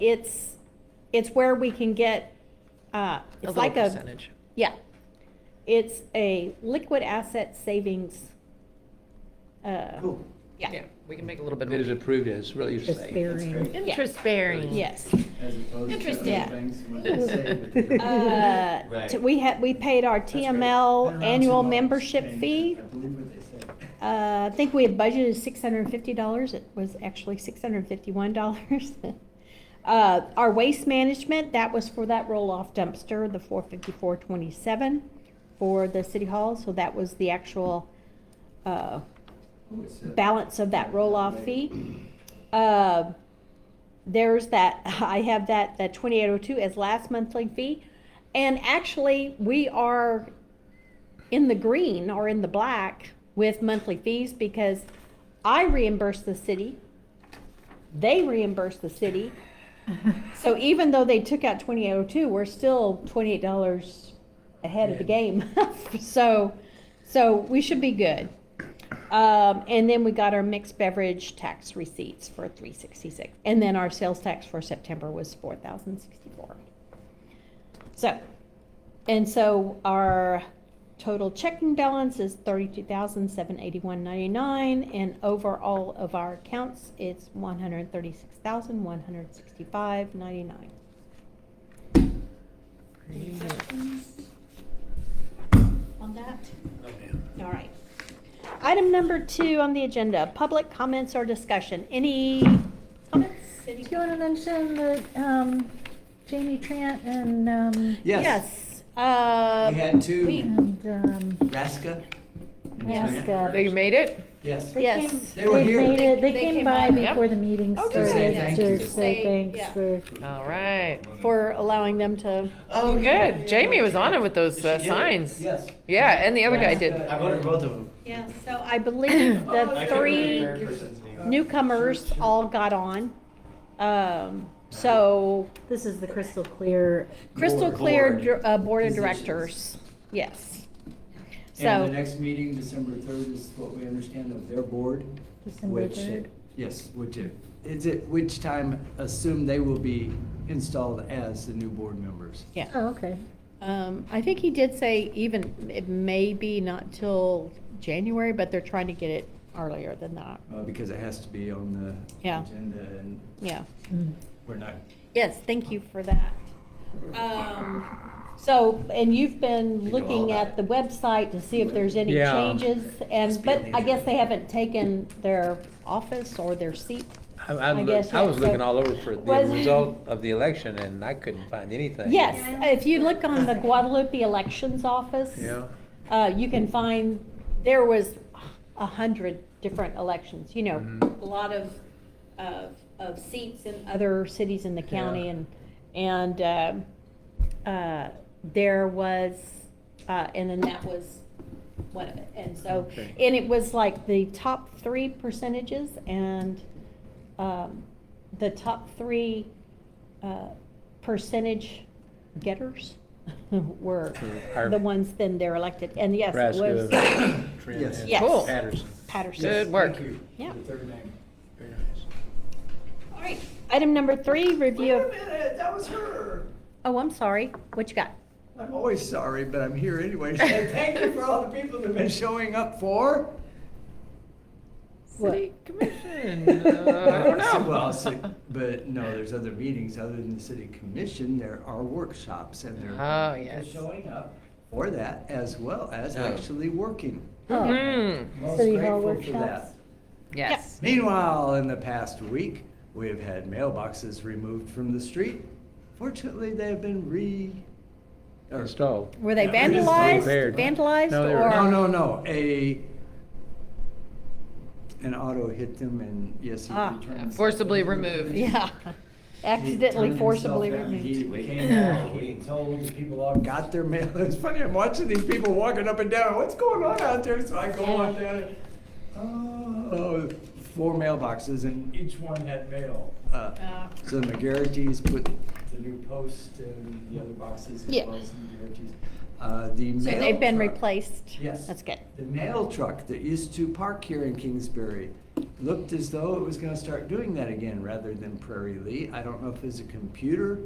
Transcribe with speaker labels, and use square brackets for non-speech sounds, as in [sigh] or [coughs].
Speaker 1: it's, it's where we can get, uh, it's
Speaker 2: little
Speaker 1: like a,
Speaker 2: percentage.
Speaker 1: yeah. It's a liquid asset savings, uh,
Speaker 3: Cool.
Speaker 1: yeah,
Speaker 2: we can make a little bit
Speaker 4: It is
Speaker 2: of.
Speaker 4: approved as really safe.
Speaker 3: That's
Speaker 5: bearing.
Speaker 3: great.
Speaker 2: Interest bearing.
Speaker 1: yes. Uh,
Speaker 3: As opposed to
Speaker 1: Yeah.
Speaker 3: other things.
Speaker 2: [laughs]
Speaker 3: when
Speaker 1: [laughs]
Speaker 3: they say we can-
Speaker 1: Uh,
Speaker 3: Right.
Speaker 1: t- We had, we paid our
Speaker 3: That's great. Been
Speaker 1: TML
Speaker 3: around
Speaker 1: annual
Speaker 3: too long.
Speaker 1: membership fee.
Speaker 3: uh, I believe what they said.
Speaker 1: Uh, I think we had budgeted six hundred and fifty dollars, it was actually six hundred and fifty-one dollars. [laughs] Uh, our waste management, that was for that roll-off dumpster, the four fifty-four twenty-seven for the city hall, so that was the actual, uh,
Speaker 3: Oh, it's, uh,
Speaker 1: balance of that roll-off fee. Uh, There's that, [laughs] I have that, that twenty-eight oh two as last monthly fee. And actually, we are in the green or in the black with monthly fees because I reimburse the city. They reimburse the city. So even though they took out twenty-eight oh two, we're still twenty-eight dollars ahead of the game. [laughs] So, so we should be good. Um, and then we got our mixed beverage tax receipts for three sixty-six, and then our sales tax for September was four thousand sixty-four. So, and so our total checking balance is thirty-two thousand seven eighty-one ninety-nine, and overall of our accounts, it's one hundred thirty-six thousand one hundred sixty-five ninety-nine. Any questions on that? All right. Item number two on the agenda, public comments or discussion. Any comments? Any-
Speaker 5: Do you want to mention that um, Jamie Trant and, um,
Speaker 3: Yes.
Speaker 1: Yes. uh,
Speaker 3: We had two.
Speaker 1: we-
Speaker 5: and um,
Speaker 3: Raska.
Speaker 5: Raska.
Speaker 2: They made it?
Speaker 3: Yes.
Speaker 5: they
Speaker 1: Yes.
Speaker 5: came-
Speaker 3: They were
Speaker 5: they
Speaker 3: here.
Speaker 5: made it- They
Speaker 6: They
Speaker 5: came
Speaker 6: came
Speaker 5: by
Speaker 6: by.
Speaker 5: before the meeting
Speaker 1: Oh, good.
Speaker 5: started
Speaker 3: Yeah.
Speaker 5: to say
Speaker 6: Say,
Speaker 5: thanks
Speaker 6: yeah.
Speaker 5: for,
Speaker 2: All right.
Speaker 1: For allowing them to,
Speaker 2: Oh, good. Jamie was on it with those uh, signs.
Speaker 3: Yes.
Speaker 2: Yeah, and the other guy
Speaker 3: Raska.
Speaker 2: did.
Speaker 7: I voted for both of them.
Speaker 1: yeah, so I [coughs] believe the
Speaker 7: I couldn't remember
Speaker 1: three
Speaker 7: the third person's name.
Speaker 1: newcomers all got on. Um, So
Speaker 5: this is the crystal clear.
Speaker 1: crystal
Speaker 3: Board.
Speaker 1: clear dir- uh, board of
Speaker 3: Positions.
Speaker 1: directors, yes.
Speaker 3: And the
Speaker 1: So,
Speaker 3: next meeting, December third, is what we understand of their board,
Speaker 5: December
Speaker 3: which,
Speaker 5: 3rd.
Speaker 3: yes, which, it- it's at which time assume they will be installed as the new board members.
Speaker 1: yeah,
Speaker 5: Oh, okay.
Speaker 1: Um, I think he did say even, it may be not till January, but they're trying to get it earlier than that,
Speaker 3: Uh, because it has to be on the
Speaker 1: Yeah.
Speaker 3: agenda and
Speaker 1: yeah.
Speaker 5: Mm.
Speaker 3: we're not.
Speaker 1: Yes, thank you for that. Um, So, and you've been
Speaker 3: You know all
Speaker 1: looking
Speaker 3: about
Speaker 1: at the website to see if there's any
Speaker 4: Yeah.
Speaker 1: changes, and,
Speaker 3: Just
Speaker 1: but
Speaker 3: being
Speaker 1: I guess
Speaker 3: easy.
Speaker 1: they haven't taken their office or their seat.
Speaker 4: I, I
Speaker 1: I guess,
Speaker 4: looked, I
Speaker 1: yeah,
Speaker 4: was
Speaker 1: so-
Speaker 4: looking all over for
Speaker 1: Was-
Speaker 4: the result of the election and I couldn't find anything.
Speaker 1: Yes, if you look on the Guadalupe Elections Office,
Speaker 4: Yeah.
Speaker 1: uh, you can find, there was a hundred different elections, you know,
Speaker 4: Mhm.
Speaker 1: a lot of, of, of seats in other cities in the county
Speaker 4: Yeah.
Speaker 1: and, and, um uh, there was, uh, and then that was one of it. And so,
Speaker 4: Okay.
Speaker 1: and it was like the top three percentages and, um, the top three, uh, percentage getters [laughs] were
Speaker 4: Are-
Speaker 1: the ones then they're elected. And yes, it was
Speaker 4: Nebraska,
Speaker 1: [coughs]
Speaker 4: Trent,
Speaker 3: Yes.
Speaker 4: and
Speaker 1: Yes.
Speaker 2: Cool.
Speaker 4: Patterson.
Speaker 1: Patterson.
Speaker 2: Good work.
Speaker 3: Thank you.
Speaker 1: Yeah.
Speaker 3: The third name.
Speaker 4: Very nice.
Speaker 1: All right, item number three, review of,
Speaker 3: minute, that was her.
Speaker 1: oh, I'm sorry, what you got?
Speaker 3: I'm always sorry, but I'm here anyway. Thank you for all the people that have been showing up for.
Speaker 5: What?
Speaker 2: City Commission. uh, I don't know.
Speaker 3: [laughs] Well,
Speaker 2: [laughs]
Speaker 3: so- but no, there's other meetings other than the city commission. There are workshops and there
Speaker 2: Oh,
Speaker 3: are people
Speaker 2: yes.
Speaker 3: showing up for that as well as
Speaker 4: Oh.
Speaker 3: actually working.
Speaker 5: Oh,
Speaker 2: Mm,
Speaker 3: Most
Speaker 5: City Hall
Speaker 3: grateful for that.
Speaker 5: workshops?
Speaker 2: yes.
Speaker 3: Meanwhile, in the past week, we have had mailboxes removed from the street. Fortunately, they have been re. or-
Speaker 4: Installed.
Speaker 1: Were they
Speaker 3: Yeah, it is
Speaker 1: vandalized,
Speaker 4: repaired.
Speaker 1: vandalized
Speaker 4: No, they were-
Speaker 1: or?
Speaker 3: No, no, no, a, an auto hit them and yes, he
Speaker 1: Ah.
Speaker 3: returned.
Speaker 2: Forcibly
Speaker 3: something.
Speaker 1: [laughs]
Speaker 2: removed.
Speaker 1: Yeah, accidentally forcibly removed.
Speaker 3: He came out,
Speaker 1: [laughs]
Speaker 3: he told the people all got their mail. [laughs] It's funny, I'm watching these people walking up and down, what's going on out there? So I go on down, and, oh, four mailboxes and each one had mail. Uh,
Speaker 1: Ah.
Speaker 3: So the McGarrity's put the new post and the other boxes as
Speaker 1: Yeah.
Speaker 3: well as the McGarrity's. Uh, the
Speaker 1: So
Speaker 3: mail
Speaker 1: they've been
Speaker 3: truck-
Speaker 1: replaced?
Speaker 3: Yes.
Speaker 1: That's good.
Speaker 3: The mail truck that used to park here in Kingsbury looked as though it was gonna start doing that again rather than Prairie Lee. I don't know if it's a computer